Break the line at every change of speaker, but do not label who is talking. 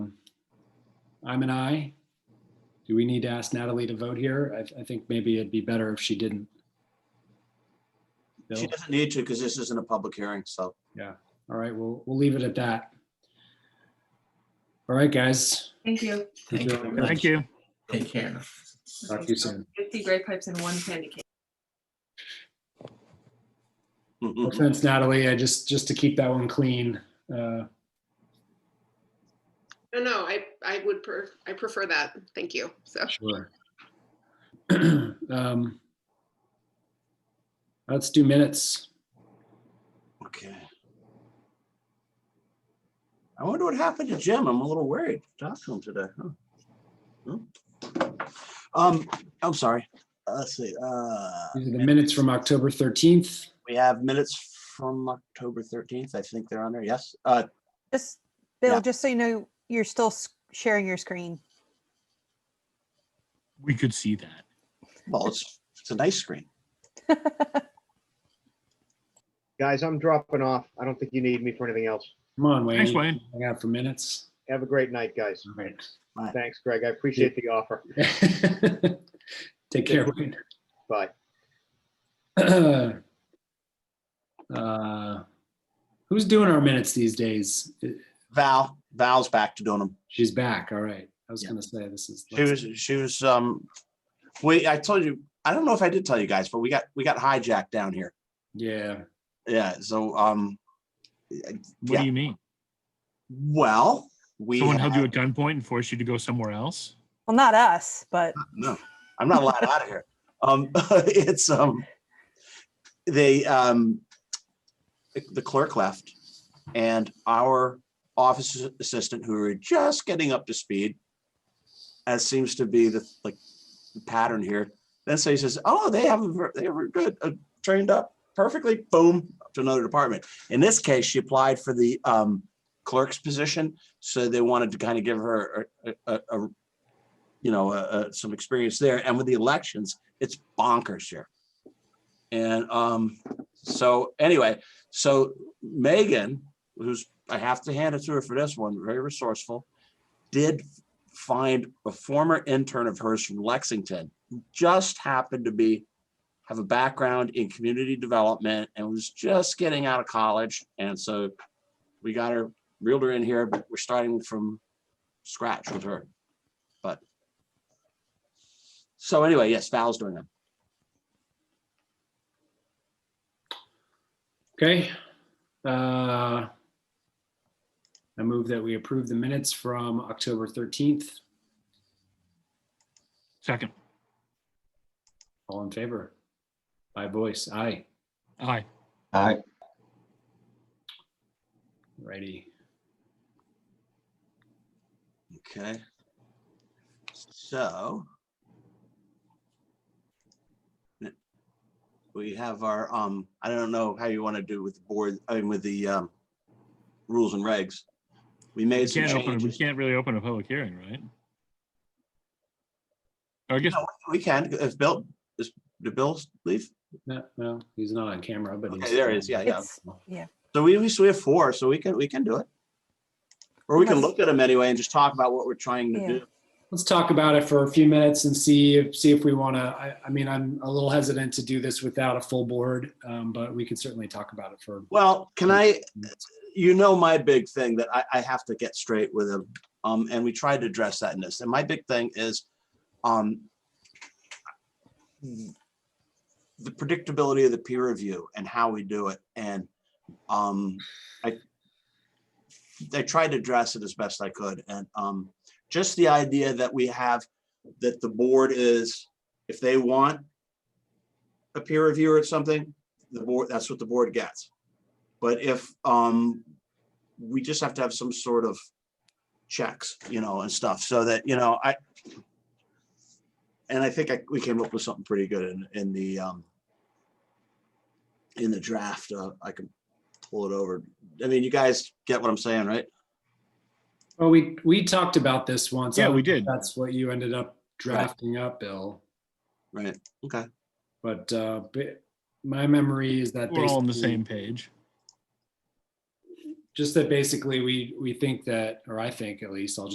I'm an I. Do we need to ask Natalie to vote here? I, I think maybe it'd be better if she didn't. Bill?
She doesn't need to because this isn't a public hearing, so.
All right, we'll, we'll leave it at that. All right, guys.
Thank you.
Thank you very much.
Thank you.
Take care.
Talk to you soon.
Fifty grape pipes and one candy cane.
No offense, Natalie, I just, just to keep that one clean. uh,
No, no, I, I would, pref- I prefer that. Thank you. So,
Sure. Um, Let's do minutes.
Okay. I wonder what happened to Jim. I'm a little worried. Talked to him today. huh? Hmm. Um, I'm sorry. Uh, Let's see. Uh,
These are the minutes from October 13th.
we have minutes from October 13th. I think they're on there. Yes. Uh,
Just,
Yeah.
Bill, just so you know, you're still s- sharing your screen.
We could see that.
well, it's, it's a nice screen.
Guys, I'm dropping off. I don't think you need me for anything else.
Come on, Wayne.
Thanks, Wayne.
Hang out for minutes.
Have a great night, guys.
All right.
Thanks, Greg. I appreciate the offer.
Take care, Wayne.
Bye.
Uh, Who's doing our minutes these days?
Val, Val's back to doing them.
She's back. All right. I was
Yeah.
gonna say this is.
She was, she was, um, we, I told you, I don't know if I did tell you guys, but we got, we got hijacked down here.
Yeah.
Yeah. So, um,
What
Yeah.
do you mean?
well, we.
Someone held
had-
you at gunpoint and forced you to go somewhere else?
Well, not us, but
no, I'm not allowed out of here. Um, it's um, they um, the clerk left, and our office assistant, who were just getting up to speed, as seems to be the like the pattern here. Then so he says, "Oh, they have a ver- they were good, uh, trained up perfectly." Boom up to another department. In this case, she applied for the um, clerk's position, so they wanted to kind of give her a- a- a, a you know, uh, uh, some experience there. And with the elections, it's bonkers here. And um, so anyway, so Megan, who's I have to hand it to her for this one, very resourceful, did find a former intern of hers from Lexington, who just happened to be have a background in community development and was just getting out of college. And so we got her reeled her in here, but we're starting from scratch with her. So anyway, yes, Val's doing them.
Okay. Uh, I move that we approve the minutes from October 13th.
Second.
All in favor? By voice, aye.
Aye.
Aye.
Righty.
Okay. So. We have our, um, I don't know how you want to do with the board, I mean, with the, um, rules and regs. We
We
made some
can't open, we
changes.
can't really open a public hearing, right? I guess,
No, We can, if Bill, is, did Bill leave?
No, no, he's not on camera, but he's.
Okay, there he is, yeah, yeah.
it's,
So we, we so we have four, so we can, we can do it. Or we can
Unless-
look at them anyway and just talk about what we're trying to
Yeah.
do.
Let's talk about it for a few minutes and see if, see if we want to, I, I mean, I'm a little hesitant to do this without a full board, um, but we could certainly talk about it for.
Well, can I, you know, my big thing that I, I have to get straight with him, um, and we tried to address that in this, and my big thing is, um, the predictability of the peer review and how we do it, and, um, I, I tried to address it as best I could, and, um, just the idea that we have, that the board is, if they want a peer reviewer or something, the board, that's what the board gets. But if, um, we just have to have some sort of checks, you know, and stuff so that, you know, I, and I think I, we came up with something pretty good in, in the, um, in the draft, uh, I can pull it over. I mean, you guys get what I'm saying, right?
Well, we, we talked about this once. I
yeah,
don't
we
know if
did.
That's what you ended up drafting up, Bill,
Right, okay.
but, uh, ba- my memory is that.
We're all on the
basically-
same page.
Just that basically we, we think that, or I think at least, I'll just